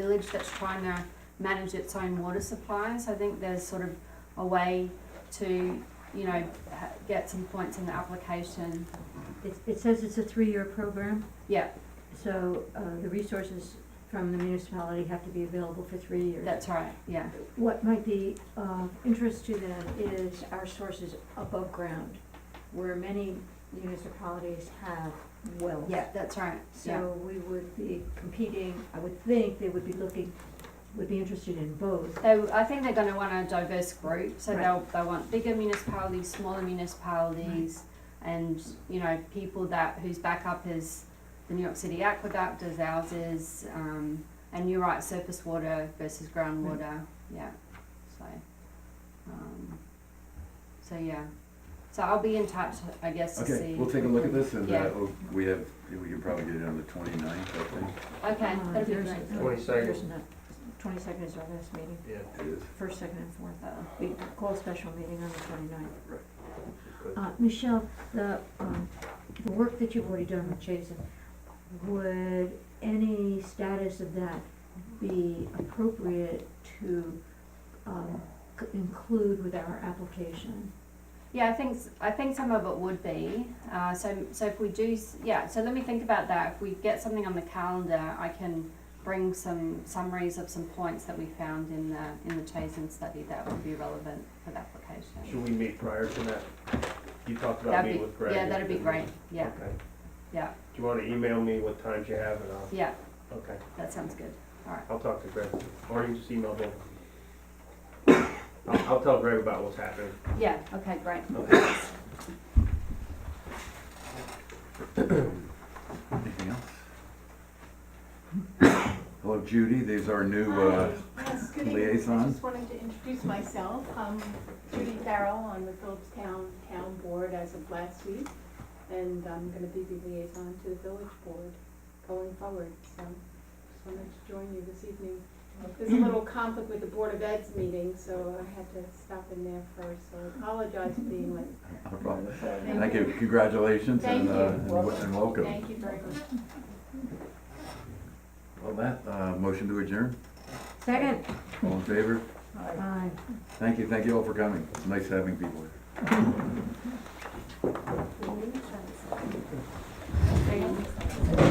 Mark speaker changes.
Speaker 1: village that's trying to manage its own water supply. So I think there's sort of a way to, you know, ha- get some points in the application.
Speaker 2: It, it says it's a three-year program,
Speaker 1: Yeah,
Speaker 2: so, uh, the resources from the municipality have to be available for three years.
Speaker 1: that's right, yeah.
Speaker 2: What might be of interest to them is our sources above ground, where many municipalities have wells.
Speaker 1: Yeah, that's right, yeah.
Speaker 2: So we would be competing, I would think they would be looking, would be interested in both.
Speaker 1: They, I think they're gonna want a diverse group, so
Speaker 2: Right.
Speaker 1: they'll, they want bigger municipalities, smaller municipalities, and, you know, people that, whose backup is the New York City Aqueduct, as ours is, um, and you're right, surface water versus groundwater, yeah, so, um, so, yeah. So I'll be in touch, I guess, to see.
Speaker 3: Okay, we'll take a look at this and,
Speaker 1: Yeah.
Speaker 3: uh, we'll- we have, we can probably get it on the twenty-ninth, I think
Speaker 1: Okay,
Speaker 2: Uh,
Speaker 1: that'd be
Speaker 2: there's-
Speaker 1: great.
Speaker 2: no,
Speaker 4: 22nd.
Speaker 2: there's not. Twenty-second is our last meeting,
Speaker 4: Yeah,
Speaker 3: it is.
Speaker 2: first, second, and fourth.
Speaker 1: Uh,
Speaker 2: We call a special meeting on the twenty-ninth.
Speaker 4: good.
Speaker 2: Uh, Michelle, the, um, the work that you've already done with Jason, would any status of that be appropriate to, um, c- include with our application?
Speaker 1: Yeah, I think s- I think some of it would be. Uh, so so if we do, s- yeah. So let me think about that. If we get something on the calendar, I can bring some summaries of some points that we found in the in the Chazen study that would be relevant for the application.
Speaker 4: Should we meet prior to that? You talked about
Speaker 1: That'd
Speaker 4: meeting
Speaker 1: be-
Speaker 4: with Greg.
Speaker 1: yeah, that'd be great. Yeah,
Speaker 4: Okay.
Speaker 1: yeah,
Speaker 4: Do you wanna email me what times you have and I'll,
Speaker 1: yeah.
Speaker 4: okay,
Speaker 1: That sounds good. All right.
Speaker 4: I'll talk to Greg, or you can just email me. I'll, I'll tell Greg about what's happening.
Speaker 1: Yeah. Okay. Great.
Speaker 4: Okay.
Speaker 3: Anything else? Hello Judy, these are new, uh,
Speaker 5: Hi, yes, good evening. I
Speaker 3: liaison.
Speaker 5: just wanted to introduce myself. I'm Judy Farrell on the Phillips Town Town Board as of last week, and I'm gonna be the liaison to the village board going forward, so just wanted to join you this evening. There's a little conflict with the Board of Ed's meeting, so I had to stop in there first, so I apologize for being late.
Speaker 3: not a problem.
Speaker 5: Thank
Speaker 3: Thank you, congratulations and,
Speaker 5: Thank
Speaker 3: uh,
Speaker 5: you.
Speaker 3: and wel- and welcome.
Speaker 5: Thank you very much.
Speaker 3: Well, that, uh, motion to adjourn,
Speaker 2: Second,
Speaker 3: all in favor?
Speaker 2: aye.
Speaker 3: Thank you, thank you all for coming, nice having people here.